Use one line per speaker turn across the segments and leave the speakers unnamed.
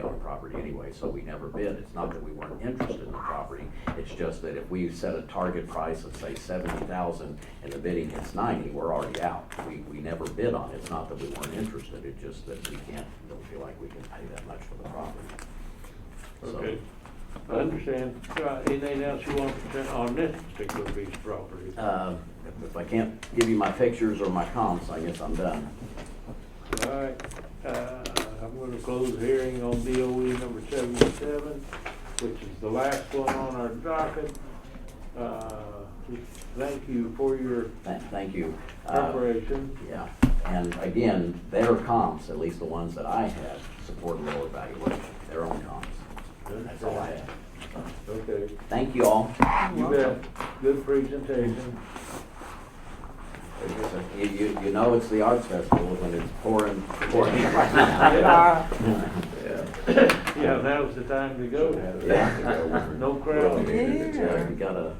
property anyway, so we never bid. It's not that we weren't interested in the property, it's just that if we set a target price of, say, seventy thousand, and the bidding hits ninety, we're already out. We, we never bid on it, it's not that we weren't interested, it's just that we can't, don't feel like we can pay that much for the property. So-
Okay, I understand. Uh, Anything else you want to present on this particular piece of property?
Uh, if- If I can't give you my pictures or my comps, I guess I'm done.
All right, uh, I'm gonna close the hearing on DOE number seventy-seven, which is the last one on our docket. Uh, Thank you for your
Tha- Thank you. Uh,
preparation.
Yeah, and again, their comps, at least the ones that I have, support lower valuation, their own comps. That's all I have.
Okay,
Thank you all.
you bet. Good presentation.
You, you, you know it's the arts festival when it's pouring, pouring right now.
Yeah,
uh,
Yeah, now's the time to go. No crowd.
Yeah, You gotta,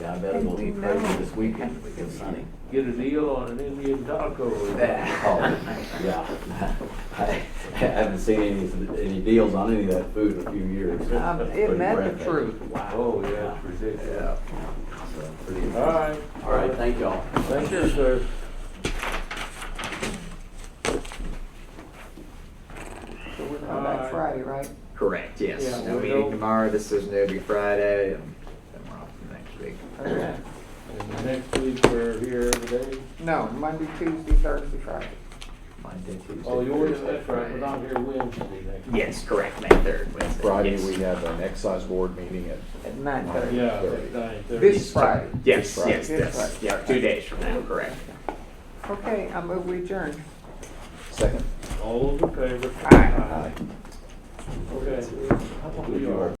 yeah, I better go eat crazy this weekend if it gets sunny.
Get a deal on an Indian taco.
Oh, Yeah, I haven't seen any, any deals on any of that food in a few years.
Um,
Pretty
it met the
breathtaking.
truth.
Oh, yeah, it's ridiculous.
So, pretty-
All right.
All right, thank y'all.
Thank you, sir.
So we're coming back Friday, right?
Correct,
Yeah,
yes. No
we
meeting
don't-
tomorrow, decision will be Friday, and then we're off to next week.
Okay.
And next week we're here every day.
No, Monday, Tuesday, Thursday, Friday.
Monday, Tuesday,
Oh, yours,
Thursday,
that's right, but I'm
Friday.
here Wednesday next week.
Yes, correct, May third, Wednesday.
Friday,
yes.
we have an excise board meeting at
At nine thirty.
Yeah, at nine thirty.
This Friday.
Yes,
Friday.
yes, yes,
Friday.
yeah, two days from now, correct.
Okay, I move we adjourn.
second.
All those in favor?
Aye.
Okay. We are.